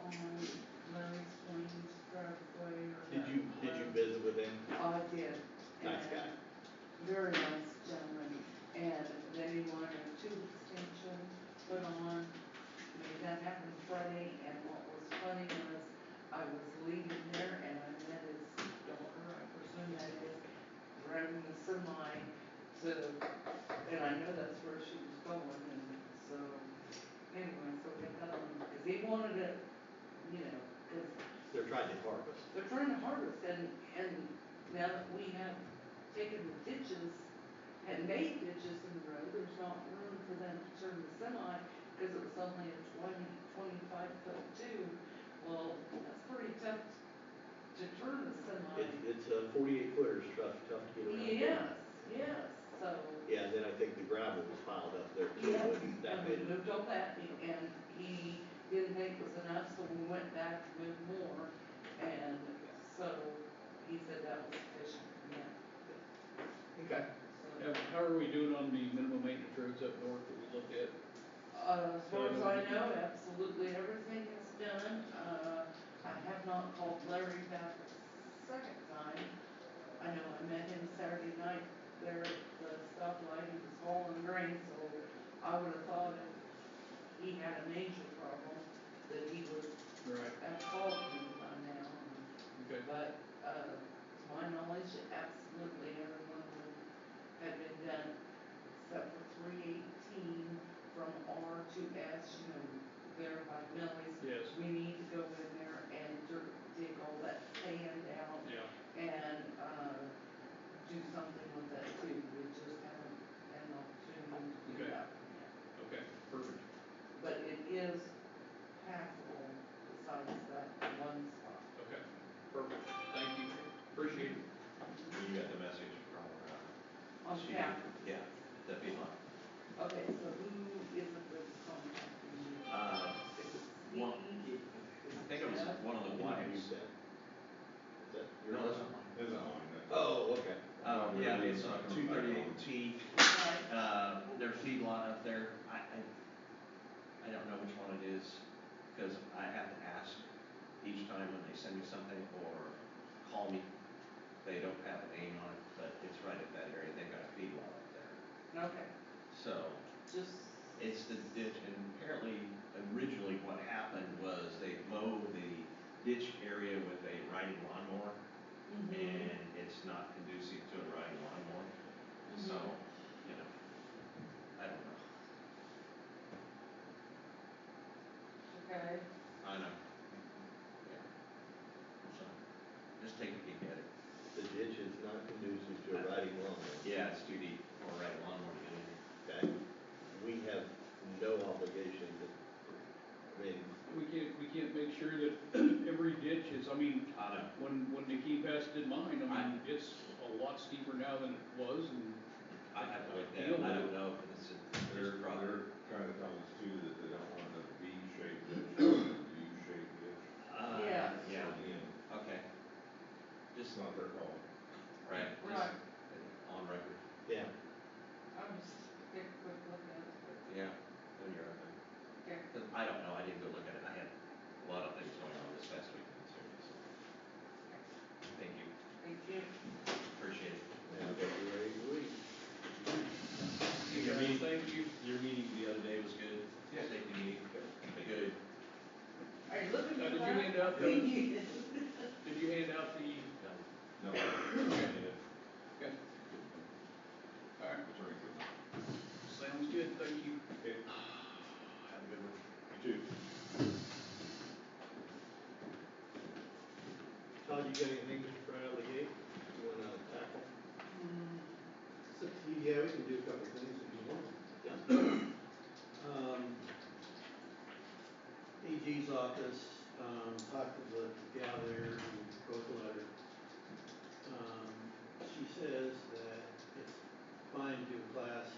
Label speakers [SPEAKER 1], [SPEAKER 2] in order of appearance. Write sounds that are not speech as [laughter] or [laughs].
[SPEAKER 1] Oh, they wanted to, you know, because
[SPEAKER 2] They're trying to harvest.
[SPEAKER 1] they're trying to harvest and, and now that we have taken the ditches and made ditches in the road, there's not room for them to turn the semi because it was only a twenty, twenty-five foot two. Well, that's pretty tough to turn the
[SPEAKER 2] It's,
[SPEAKER 1] semi.
[SPEAKER 2] it's a forty-eight footer, it's tough, tough to get around.
[SPEAKER 1] Yes, yes, so.
[SPEAKER 2] Yeah, and then I think the gravel was piled up there too,
[SPEAKER 1] Yeah,
[SPEAKER 2] and that
[SPEAKER 1] and we
[SPEAKER 2] made it,
[SPEAKER 1] moved all that, and he didn't think it was enough, so we went back to move more, and so he said that was sufficient, yeah,
[SPEAKER 2] okay.
[SPEAKER 1] so.
[SPEAKER 3] Yeah, How are we doing on the minimum maintenance roads up north that we looked at?
[SPEAKER 1] Uh, as far as I know, absolutely everything is done, uh, I have not called Larry back a second time. I know I met him Saturday night there at the stoplight, he was hauling grain, so I would have thought if he had a major problem, that he would
[SPEAKER 3] Right,
[SPEAKER 1] I've called him by now,
[SPEAKER 3] okay,
[SPEAKER 1] but, uh, to my knowledge, absolutely every one of them had been done, except for three eighteen from R to S, you know, there by Millie's.
[SPEAKER 3] yes,
[SPEAKER 1] We need to go in there and dirt, dig all that sand out
[SPEAKER 3] yeah,
[SPEAKER 1] and, uh, do something with that too, we just haven't had an opportunity to do
[SPEAKER 3] Okay.
[SPEAKER 1] that.
[SPEAKER 3] okay, perfect.
[SPEAKER 1] But it is passable besides that one spot.
[SPEAKER 3] Okay, perfect, thank you, appreciate it.
[SPEAKER 4] You got the message from, uh,
[SPEAKER 1] On
[SPEAKER 4] she,
[SPEAKER 1] cap,
[SPEAKER 4] yeah, that'd be fine.
[SPEAKER 1] okay, so who is the first contact?
[SPEAKER 4] Uh, one, I think it was one of the
[SPEAKER 2] You
[SPEAKER 4] wives.
[SPEAKER 2] said. Is that your
[SPEAKER 4] No, that's
[SPEAKER 2] husband?
[SPEAKER 4] not mine.
[SPEAKER 5] Isn't on that.
[SPEAKER 2] Oh, okay.
[SPEAKER 4] Uh, yeah, it's on two thirty-eight T,
[SPEAKER 1] Right,
[SPEAKER 4] uh, their feedlot up there, I, I, I don't know which one it is, cause I have to ask each time when they send me something or call me. They don't have a name on it, but it's right at that area, they've got a feedlot up there,
[SPEAKER 1] okay,
[SPEAKER 4] so.
[SPEAKER 1] just,
[SPEAKER 4] It's the ditch, and apparently, originally what happened was they mowed the ditch area with a riding lawnmower,
[SPEAKER 1] mhm,
[SPEAKER 4] and it's not conducive to a riding lawnmower,
[SPEAKER 1] Mm-hmm.
[SPEAKER 4] so, you know, I don't know.
[SPEAKER 1] okay,
[SPEAKER 4] I know. Yeah. So, just take a peek at it.
[SPEAKER 2] The ditch is not conducive to a riding lawnmower.
[SPEAKER 4] Yeah, it's too deep for a riding lawnmower to get in there.
[SPEAKER 2] Okay, we have no obligation to, I mean,
[SPEAKER 3] We can't, we can't make sure that [clears throat] every ditch is, I mean,
[SPEAKER 4] I know.
[SPEAKER 3] when, when the key pass did mine, I mean,
[SPEAKER 4] Right.
[SPEAKER 3] it's a lot steeper now than it was, and,
[SPEAKER 4] I have to look that, I don't know if it's a,
[SPEAKER 5] They're,
[SPEAKER 4] their problem.
[SPEAKER 5] they're trying to tell us too that they don't want the V-shaped ditch, they want the U-shaped ditch.
[SPEAKER 4] Uh,
[SPEAKER 1] Yeah.
[SPEAKER 4] Yeah,
[SPEAKER 5] Again,
[SPEAKER 4] okay. Just
[SPEAKER 5] it's not their fault.
[SPEAKER 4] Right.
[SPEAKER 1] Right.
[SPEAKER 4] just On record,
[SPEAKER 2] yeah,
[SPEAKER 1] I'll just take a quick look at it,
[SPEAKER 4] yeah, when you're up there.
[SPEAKER 1] okay,
[SPEAKER 4] 'Cause I don't know, I didn't go look at it, I had a lot of things going on this past weekend, so, so. Thank you,
[SPEAKER 1] thank you.
[SPEAKER 4] appreciate it.
[SPEAKER 2] now that you're ready to leave.
[SPEAKER 4] Your meeting,
[SPEAKER 3] thank you.
[SPEAKER 4] your meeting the other day was good?
[SPEAKER 3] Yeah.
[SPEAKER 4] Safety meeting, good.
[SPEAKER 1] Are you
[SPEAKER 4] Uh,
[SPEAKER 1] looking
[SPEAKER 3] Now,
[SPEAKER 1] for
[SPEAKER 3] did you
[SPEAKER 1] that?
[SPEAKER 3] hand
[SPEAKER 1] [laughs]
[SPEAKER 3] out the, did you hand out the,
[SPEAKER 4] No.
[SPEAKER 5] No, attorney
[SPEAKER 3] okay, all right,
[SPEAKER 5] couldn't.
[SPEAKER 3] sounds good, thank you.
[SPEAKER 4] Have a good one.
[SPEAKER 5] You too.
[SPEAKER 2] Todd, you got anything right out of the gate you wanna tackle?
[SPEAKER 4] Mm-hmm.
[SPEAKER 1] Hmm,
[SPEAKER 6] Yeah, we can do a couple of things if you want.
[SPEAKER 2] Yeah.
[SPEAKER 6] Um, AG's office, um, talked to the gal there who wrote the letter. Um, she says that it's fine to class